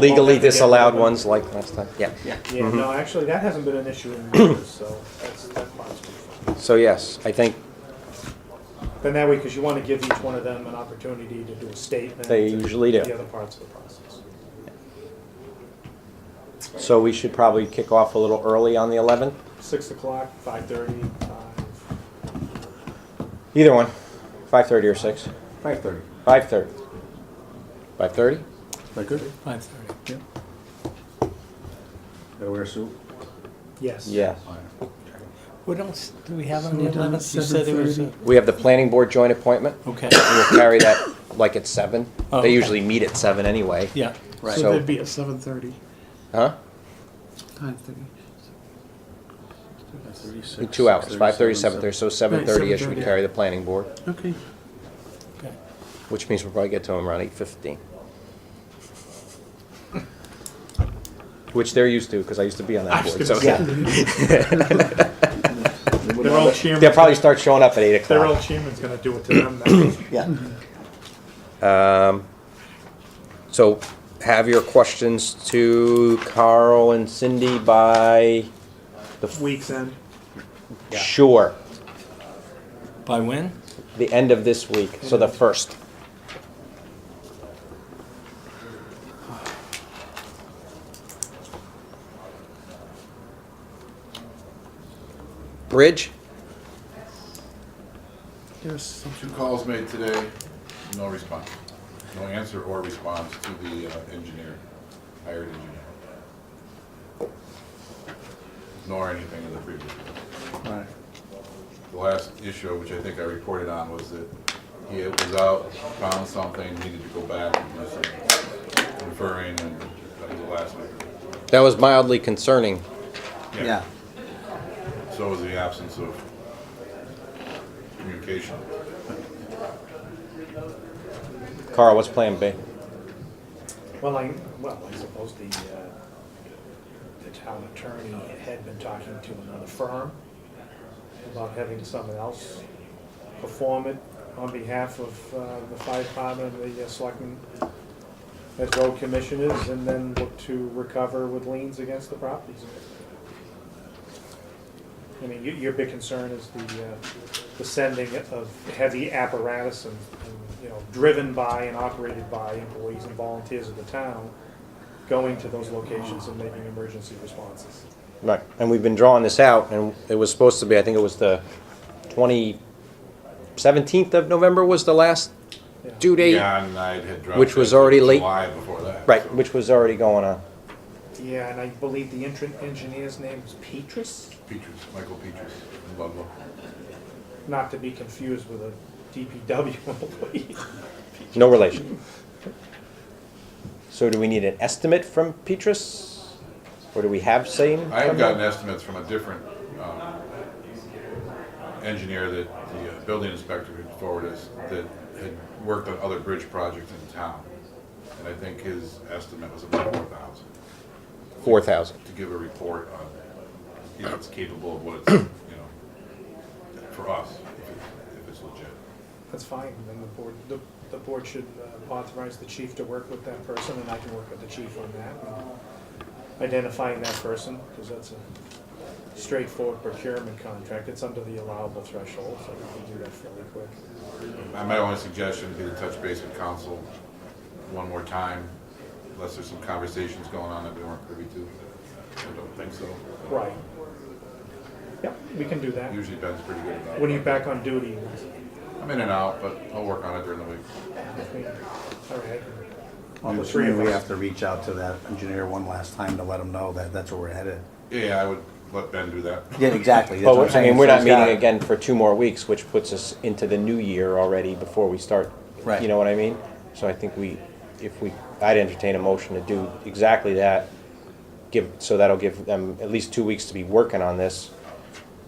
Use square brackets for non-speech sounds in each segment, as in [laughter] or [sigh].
legally disallowed ones like last time, yeah. Yeah, Mm-hmm. no, actually, that hasn't been an issue in years, so that's, that's fine. So yes, I think Then that way, because you want to give each one of them an opportunity to do a statement. they and usually The do. other parts of the process. So we should probably kick off a little early on the 11th, Six o'clock, five thirty, five. either one, 5:30 or 6, Five thirty. 5:30. 5:30? That good? Five thirty. Yeah. Gotta wear a suit? Yes. Yes. What else do we have on the eleventh? You said there was a, We have the planning board joint appointment, okay, we'll carry that like at 7. Oh, They okay. usually meet at 7 anyway. yeah, right. So- So they'd be at seven thirty, Huh? nine thirty. In Two hours, 5:30, 7:30, so 7:30-ish we 7:30, carry the planning board, Okay. okay. which means we'll probably get to them around 8:15. Which they're used to, because I used to be on that I was board, gonna so yeah. [laughs] Their old chairman. They'll probably start showing up at 8 Their old o'clock. chairman's going to do it to them now. So have your questions to Carl and Cindy by, Week's end. sure, By when? the end of this week, so the 1st. Bridge? There's something. Two calls made today, no response. No answer or response to the uh, engineer, hired engineer. Nor anything in the previous. Right. The last issue, which I think I reported on, was that he was out, found something, needed to go back and this and referring, and that was the last one. That was mildly concerning. Yeah. So was the absence of communication. Carl, what's Plan B? Well, I, well, I suppose the, uh, the town attorney had been talking to another firm about having someone else perform it on behalf of uh, the fire department, the uh, selectmen, as road commissioners, and then look to recover with liens against the properties. I mean, your, your big concern is the, uh, the sending of heavy apparatus and, and, you know, driven by and operated by employees and volunteers of the town, going to those locations and making emergency responses. Right, and we've been drawing this out, and it was supposed to be, I think it was the 20, 17th of November was the last Yeah. due date? Yeah, and I had dropped. Which was it to already late. July before that. Right, so- which was already going on. Yeah, and I believe the entrant engineer's name is Petrus, Peaches, Michael Peaches in Ludlow. not to be confused with a DPW [laughs] employee. No relation. So do we need an estimate from Petrus? Or do we have same? I have from gotten them? estimates from a different um, engineer that the uh, building inspector had forwarded us that had worked on other bridge projects in town. And I think his estimate was about four thousand 4,000. to give a report on if it's capable of what it's, you know, for us, if it's- if it's legit. That's fine, then the board, the, the board should uh, authorize the chief to work with that person, and I can work with the chief on that. Identifying that person, because that's a straightforward procurement contract, it's under the allowable threshold, so we can do that fairly quick. Uh, My only suggestion would be to touch base with council one more time, unless there's some conversations going on that we weren't privy to. I don't think so. Right. Yep, we can do that. Usually Ben's pretty good about it. When are you back on duty? I'm in and out, but I'll work on it during the week. All right. All I'm the three assuming of we us. have to reach out to that engineer one last time to let him know that that's where we're headed. Yeah, I would let Ben do that. Yeah, exactly. That's what But, I'm I mean, saying. we're So not he's got- meeting again for two more weeks, which puts us into the new year already before we start. Right. You know what I mean? So I think we, if we, I'd entertain a motion to do exactly that. Give, so that'll give them at least two weeks to be working on this.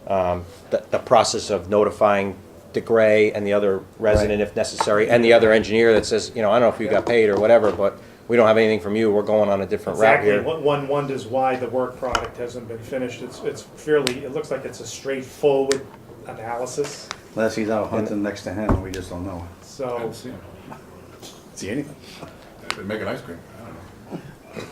Um, The, the process of notifying DeGray and the other resident if necessary, and the other engineer that says, you know, I don't know if you got paid or whatever, but we don't have anything from you, we're going on a different route Exactly, here. one one wonders why the work product hasn't been finished, it's, it's fairly, it looks like it's a straightforward analysis, Unless he's out hunting next to him, we just don't know. so. I haven't seen him. See anything? I've been making ice cream.